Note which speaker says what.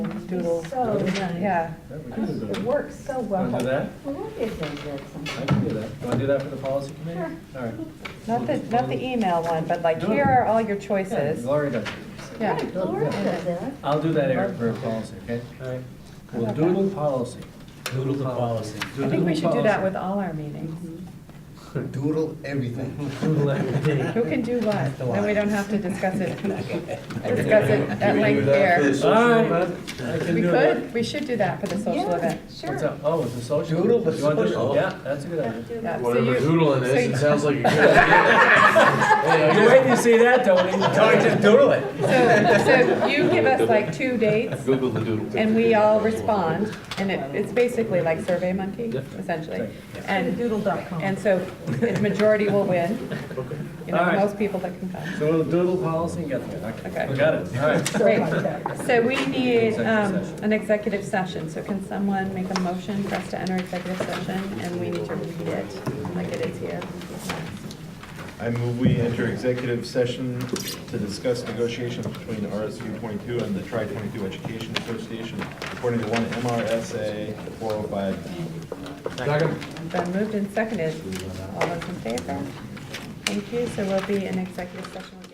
Speaker 1: doodle.
Speaker 2: So nice.
Speaker 1: Yeah,
Speaker 3: Yeah, we can do
Speaker 2: It
Speaker 3: that.
Speaker 2: works so well.
Speaker 3: Want to do that?
Speaker 2: Well, we'll get things done
Speaker 3: I
Speaker 2: sometime.
Speaker 3: can do that. Want to do that for the policy committee? All right.
Speaker 1: not the, not the email one, but like,
Speaker 3: No.
Speaker 1: here are all your
Speaker 3: Yeah,
Speaker 1: choices.
Speaker 3: Gloria does.
Speaker 1: Yeah.
Speaker 2: Right, Laura does that.
Speaker 3: I'll do that, Eric, for policy, okay? All right. We'll doodle policy.
Speaker 4: Doodle the policy.
Speaker 1: I think we should do that with all our meetings.
Speaker 5: Doodle everything.
Speaker 4: Doodle everything.
Speaker 1: Who can do what? And we don't have to discuss it, discuss it at
Speaker 5: Can we do
Speaker 1: length
Speaker 5: that for
Speaker 1: here.
Speaker 5: the social
Speaker 3: All right,
Speaker 5: event?
Speaker 3: I can
Speaker 1: We
Speaker 3: do that.
Speaker 1: could, we should do that for the social
Speaker 2: Yeah,
Speaker 1: event.
Speaker 2: Sure.
Speaker 3: What's up? Oh, it's a social.
Speaker 5: Doodle the
Speaker 3: You want to do-
Speaker 5: social.
Speaker 3: Yeah, that's a good idea.
Speaker 2: Do
Speaker 1: Yeah,
Speaker 2: that.
Speaker 1: so
Speaker 5: Whatever
Speaker 1: you-
Speaker 5: doodling
Speaker 1: so
Speaker 5: is,
Speaker 1: you-
Speaker 5: it sounds like a good idea. Hey,
Speaker 3: You're waiting to see that, Tony.
Speaker 5: I just doodle it.
Speaker 1: So, so you give us like two dates,
Speaker 5: Google the doodle.
Speaker 1: and we all respond, and it, it's basically like Survey Monkey, essentially. And,
Speaker 2: Doodle.com.
Speaker 1: and so the majority will win, you know,
Speaker 3: All right.
Speaker 1: most people that can come.
Speaker 3: So we'll doodle policy and get there.
Speaker 1: Okay.
Speaker 3: We Got it, all right.
Speaker 1: Great. So we need um,
Speaker 3: Executive session.
Speaker 1: an executive session, so can someone make a motion for us to enter executive session? And we need to read it like it is here.
Speaker 6: I move we enter executive session to discuss negotiations between RSU 22 and the Tri-22 Education Association according to one MRSA 405.
Speaker 1: Been moved and seconded. All those in favor? Thank you, so we'll be in executive session.